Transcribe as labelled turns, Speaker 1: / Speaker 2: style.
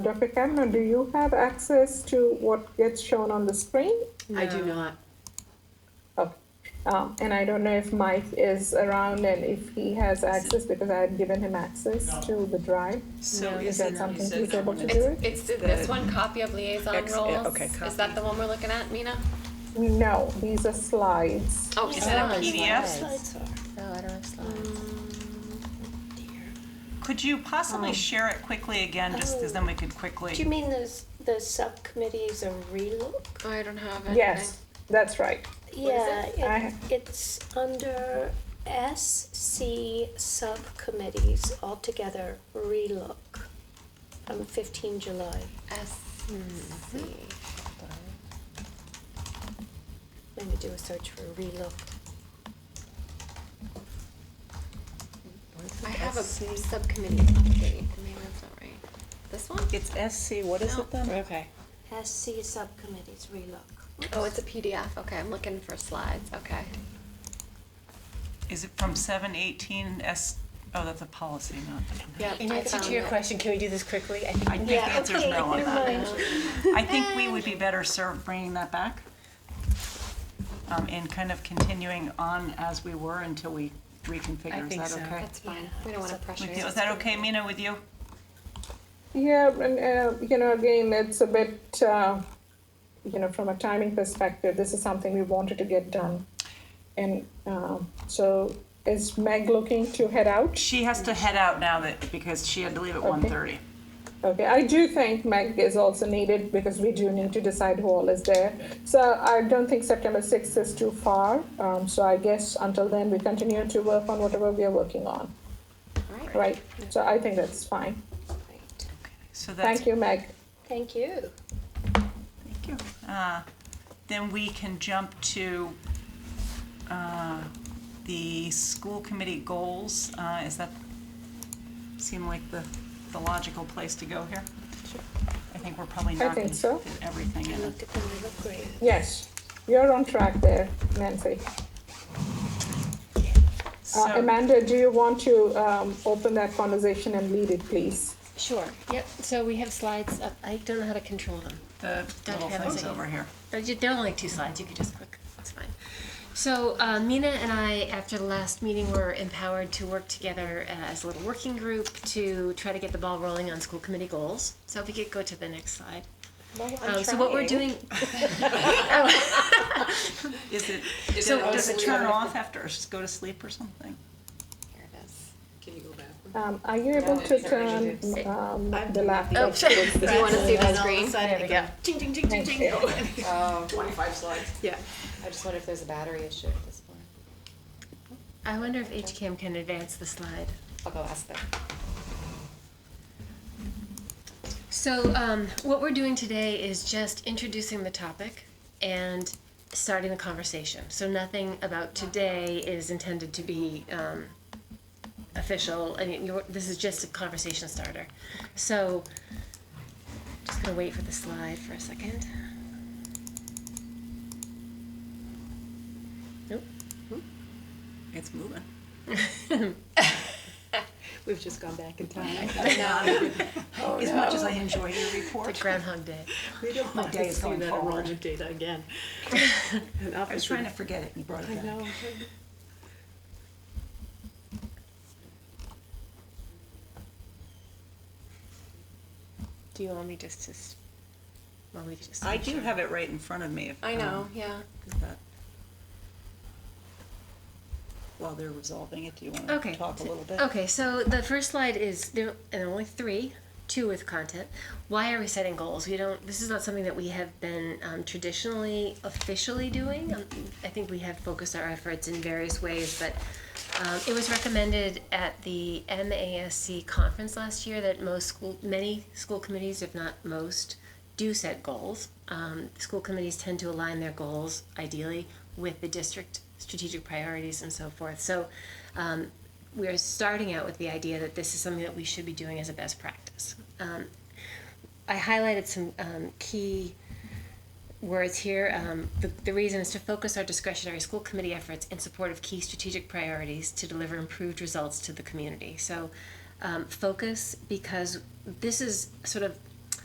Speaker 1: Dr. Kavanaugh, do you have access to what gets shown on the screen?
Speaker 2: I do not.
Speaker 1: Oh, Um, and I don't know if Mike is around and if he has access, because I had given him access to the drive.
Speaker 3: So
Speaker 1: Is that something he's able to do?
Speaker 4: It's, it's this one, copy of liaison
Speaker 3: Ex- yeah,
Speaker 4: roles.
Speaker 3: okay,
Speaker 4: Is that the one we're looking at, Mina?
Speaker 1: No, these are slides.
Speaker 4: Oh,
Speaker 5: Is
Speaker 4: sorry.
Speaker 5: that a PDF?
Speaker 6: No, I don't have slides.
Speaker 5: Could you possibly share it quickly again, just because then we could quickly?
Speaker 7: Do you mean those, the subcommittees are relook?
Speaker 4: Oh, I don't have it.
Speaker 1: Yes, that's right.
Speaker 7: Yeah,
Speaker 1: I-
Speaker 7: it, it's under SC subcommittees altogether, relook, from fifteen July,
Speaker 4: SC.
Speaker 7: maybe do a search for relook.
Speaker 4: I have a subcommittee update, maybe that's not right. This one?
Speaker 3: It's SC, what is it then?
Speaker 6: Okay.
Speaker 7: SC subcommittees, relook.
Speaker 4: Oh, it's a PDF, okay, I'm looking for slides, okay.
Speaker 5: Is it from seven eighteen S, oh, that's a policy, not.
Speaker 4: Yep,
Speaker 6: In
Speaker 4: I
Speaker 6: answer
Speaker 4: found
Speaker 6: to your
Speaker 4: it.
Speaker 6: question, can we do this quickly? I
Speaker 5: I
Speaker 6: think
Speaker 5: think the
Speaker 7: Yeah,
Speaker 5: answer is
Speaker 7: okay,
Speaker 5: no on
Speaker 7: never
Speaker 5: that.
Speaker 7: mind.
Speaker 5: I think we would be better served bringing that back. Um, and kind of continuing on as we were until we reconfigure, is
Speaker 6: think
Speaker 5: that
Speaker 6: so.
Speaker 5: okay?
Speaker 4: That's fine, we don't wanna pressure
Speaker 5: With
Speaker 4: you.
Speaker 5: you- Is that okay, Mina, with you?
Speaker 1: Yeah, and, uh, you know, again, it's a bit, uh, you know, from a timing perspective, this is something we wanted to get done. And, um, so is Meg looking to head out?
Speaker 5: She has to head out now that, because she had to leave at one thirty.
Speaker 1: Okay, I do think Meg is also needed because we do need to decide who all is there. So I don't think September sixth is too far, um, so I guess until then, we continue to work on whatever we are working on,
Speaker 4: Alright.
Speaker 1: right? So I think that's fine.
Speaker 7: Right,
Speaker 5: So that's
Speaker 1: Thank you, Meg.
Speaker 7: thank you.
Speaker 5: Thank you. Uh, Then we can jump to uh, the school committee goals. Uh, Is that, seem like the, the logical place to go here? I think we're probably not
Speaker 1: think
Speaker 5: going to
Speaker 1: so. Uh,
Speaker 5: fit everything
Speaker 7: I
Speaker 5: in. it.
Speaker 7: looked at them, they look great.
Speaker 1: Yes, you're on track there, Nancy.
Speaker 5: So,
Speaker 1: Uh, Amanda, do you want to, um, open that conversation and lead it, please?
Speaker 6: Sure, yep, so we have slides up, I don't know how to control them.
Speaker 5: the
Speaker 6: Don't
Speaker 5: little
Speaker 6: have
Speaker 5: things
Speaker 6: anything.
Speaker 5: over here.
Speaker 6: But you- They're only like two slides, you could just click, it's fine. So uh, Mina and I, after the last meeting, were empowered to work together uh, as a little working group to try to get the ball rolling on school committee goals. So if we could go to the next slide. Um, So what we're doing,
Speaker 5: Is it,
Speaker 6: So
Speaker 5: does it turn off after, or just go to sleep or something?
Speaker 4: Here it is.
Speaker 1: Um, are you able to turn, um, the laptop?
Speaker 6: oh, sorry.
Speaker 4: Do you wanna see the screen?
Speaker 6: There we go.
Speaker 3: Yeah.
Speaker 2: I just wonder if there's a battery issue at this point.
Speaker 6: I wonder if HCAM can advance the slide.
Speaker 2: I'll go ask them.
Speaker 6: So, um, what we're doing today is just introducing the topic and starting the conversation. So, nothing about today is intended to be um, official. I mean, you're, this is just a conversation starter. So, just gonna wait for the slide for a second. Nope.
Speaker 5: It's moving.
Speaker 3: We've just gone back in time.
Speaker 5: As much as I enjoy your
Speaker 6: It's
Speaker 5: report,
Speaker 6: like Groundhog Day.
Speaker 3: We don't
Speaker 5: My
Speaker 3: want
Speaker 5: day
Speaker 3: to
Speaker 5: is
Speaker 3: see
Speaker 5: going
Speaker 3: that
Speaker 5: forward.
Speaker 3: erotic data again.
Speaker 5: I was trying to forget it, you brought
Speaker 3: I
Speaker 5: it back.
Speaker 3: know.
Speaker 6: Do you want me just to? s- Well, we could just.
Speaker 5: I do have it right in front of me. if,
Speaker 4: I know,
Speaker 5: um,
Speaker 4: yeah.
Speaker 5: Is that, while they're resolving it, do you want
Speaker 6: Okay. Oh,
Speaker 5: to talk a little bit?
Speaker 6: Okay, so the first slide is there, and there are only three, two with content. Why are we setting goals? We don't. This is not something that we have been um, traditionally officially doing. Um, I think we have focused our efforts in various ways, but um, it was recommended at the MASC conference last year that most school, many school committees, if not most, do set goals. Um, school committees tend to align their goals ideally with the district strategic priorities and so forth. So um, we're starting out with the idea that this is something that we should be doing as a best practice. Um, I highlighted some um, key words here. Um, the, the reason is to focus our discretionary school committee efforts in support of key strategic priorities to deliver improved results to the community. So, um, focus because this is sort of